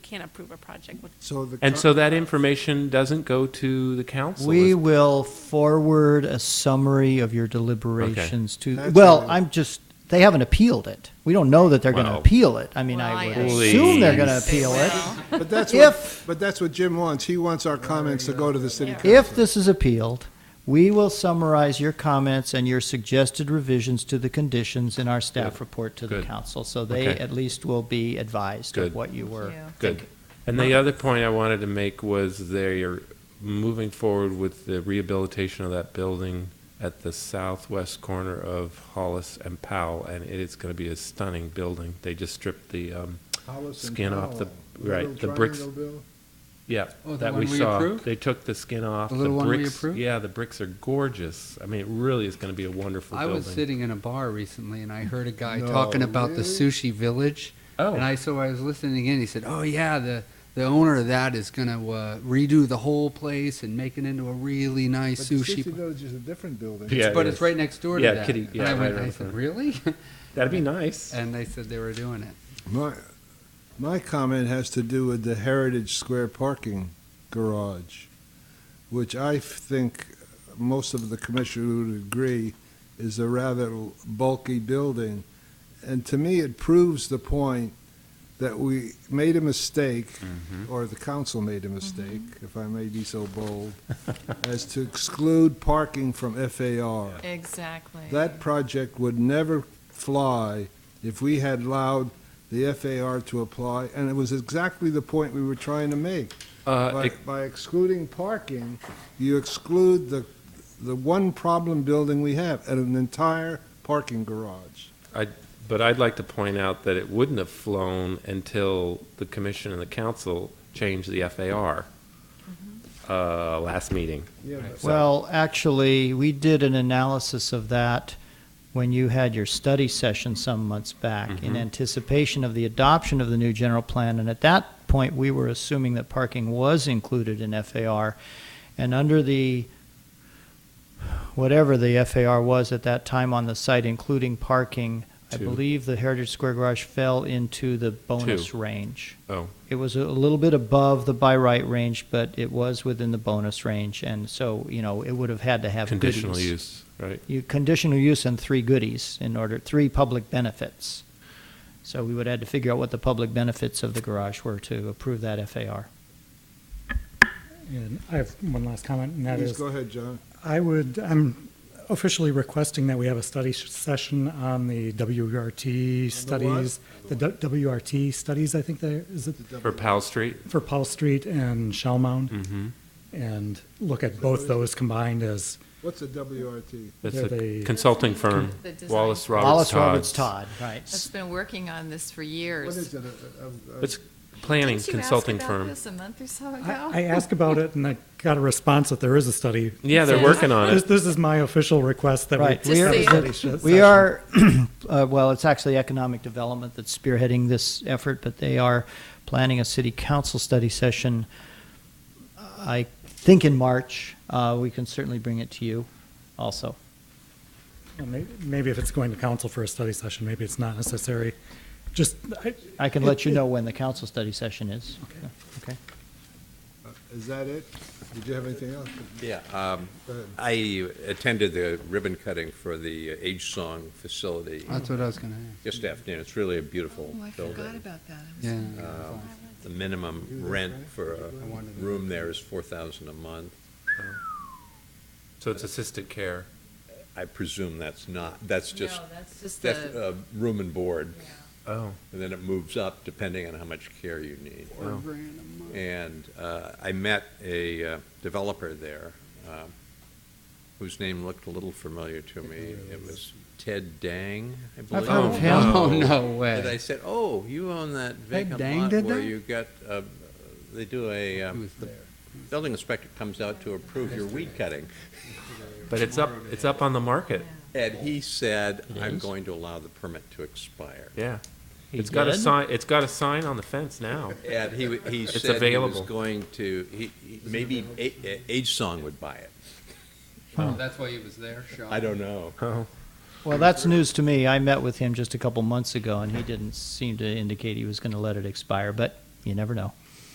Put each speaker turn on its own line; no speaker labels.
can't approve a project with
So the.
And so that information doesn't go to the council?
We
is-
will forward a summary of your deliberations to,
That's
well,
all.
I'm just, they haven't appealed it. We don't know that they're going to
Well.
appeal it. I mean,
Well,
I would
I
assume they're going to
They
appeal it.
will.
But that's what,
If-
but that's what Jim wants. He wants our comments to go to the city council.
If this is appealed, we will summarize your comments and your suggested revisions to the conditions in our staff
Good.
report to the
Good.
council. So they
Okay.
at least will be advised
Good.
of what you were.
Good. And the other point I wanted to make was they're moving forward with the rehabilitation of that building at the southwest corner of Hollis and Powell, and it is going to be a stunning building. They just stripped the, um,
Hollis and
Skin off the-
Powell.
right,
Little
the bricks-
triangle bill.
yeah,
Oh, the
that we
one we
saw.
approved?
They took the skin off.
The little one we
bricks-
approved?
Yeah, the bricks are gorgeous. I mean, it really is going to be a wonderful
I
building.
was sitting in a bar recently and I heard a guy
No
talking about the
way.
sushi village.
Oh.
And I so I was listening in. He said, "Oh yeah, the the owner of that is going to uh, redo the whole place and make it into a really
But
nice
the Sushi
sushi." pla-
Village is a different building.
Yeah.
but
it
it's
is.
right next door to
Yeah,
that.
kitty- yeah,
and I
right
went,
around
I
the
said,
corner.
"Really?"
That'd be nice.
and they said they were doing it.
My, my comment has to do with the Heritage Square parking garage, which I f- think most of the commissioners would agree is a rather bulky building. And to me, it proves the point that we made a mistake, or the council made a mistake, if I may be so bold, as to exclude parking from FAR.
Exactly.
That project would never fly if we had allowed the FAR to apply, and it was exactly the point we were trying to make.
Uh,
By, by excluding parking, you exclude the, the one problem building we have, and an entire parking garage.
But I'd like to point out that it wouldn't have flown until the commission and the council changed the FAR uh, last meeting.
Yeah, but-
Well, actually, we did an analysis of that when you had your study session some months back
Mm-hmm.
in anticipation of the adoption of the new general plan. And at that point, we were assuming that parking was included in FAR. And under the, whatever the FAR was at that time on the site, including parking, I
Two.
believe the Heritage Square Garage fell into the bonus
Two.
range.
Oh.
It was a little bit above the by right range, but it was within the bonus range, and so, you know, it would have had to have goodies.
Conditional use, right?
You, conditional use and three goodies in order, three public benefits. So we would have had to figure out what the public benefits of the garage were to approve that FAR.
And I have one last comment, and that
Please
is,
go ahead, John.
I would, I'm officially requesting that we have a study sh- session on the WRT studies, the W- WRT studies, I think there, is it,
For Powell Street? Mm-hmm.
for Paul Street and Shell Mound? And look at both those combined as,
What's a WRT?
That's
Yeah,
a
they-
consulting firm,
The design-
Wallace Roberts
Wallace
Todd.
Roberts Todd, right.
That's been working on this for
What
years.
is it? A- a- a-
It's planning
Didn't you ask
consulting
about
firm.
this a month or so ago?
I I asked about it, and I got a response that there is a study.
Yeah, they're
Yeah.
working on
This,
it.
this is my official request that
Right.
we
Just
have
so
a
you-
study sh-
We
session.
are, uh, well, it's actually economic development that's spearheading this effort, but they are planning a city council study session, uh, I think in March. Uh, We can certainly bring it to you also.
Well, may- Maybe if it's going to council for a study session, maybe it's not necessary. Just, I,
I can let you know when the council study session is. Okay.
Is that it? Did you have anything else?
Yeah, um,
Go ahead.
I attended the ribbon cutting for the uh, Age Song facility
That's what I was going to.
just afternoon. It's really a beautiful
Oh, I forgot
building.
about that. I was-
Yeah.
The minimum rent for a
wanted to-
room there is four thousand a month.
So it's assisted care.
I presume that's not, that's just,
No, that's just
that's,
the,
uh, room and board.
Oh.
And then it moves up depending on how much care you need.
Four grand a month.
And uh, I met a uh, developer there um, whose name looked a little familiar to me. It was Ted Dang, I believe.
heard of him.
Oh
No.
no
And I
way!
said, "Oh, you own that vacant
Dang
lot
did
where
that?
you got uh, they do a um,
was
the building inspector comes out to approve your weed cutting."
But it's up, it's up on the market,
And he said, "I'm
Yes.
going to allow the permit to expire."
yeah. It's got a
did?
sign, it's got a sign on the fence now.
And he w- he said he
available.
was going to he, he- maybe A- A- Age Song would buy it.
Oh, that's why he was there. Sean.
I don't know.
Oh,
Well, that's news to me. I met with him just a couple months ago, and he didn't seem to indicate he was going to let it expire, but you never know.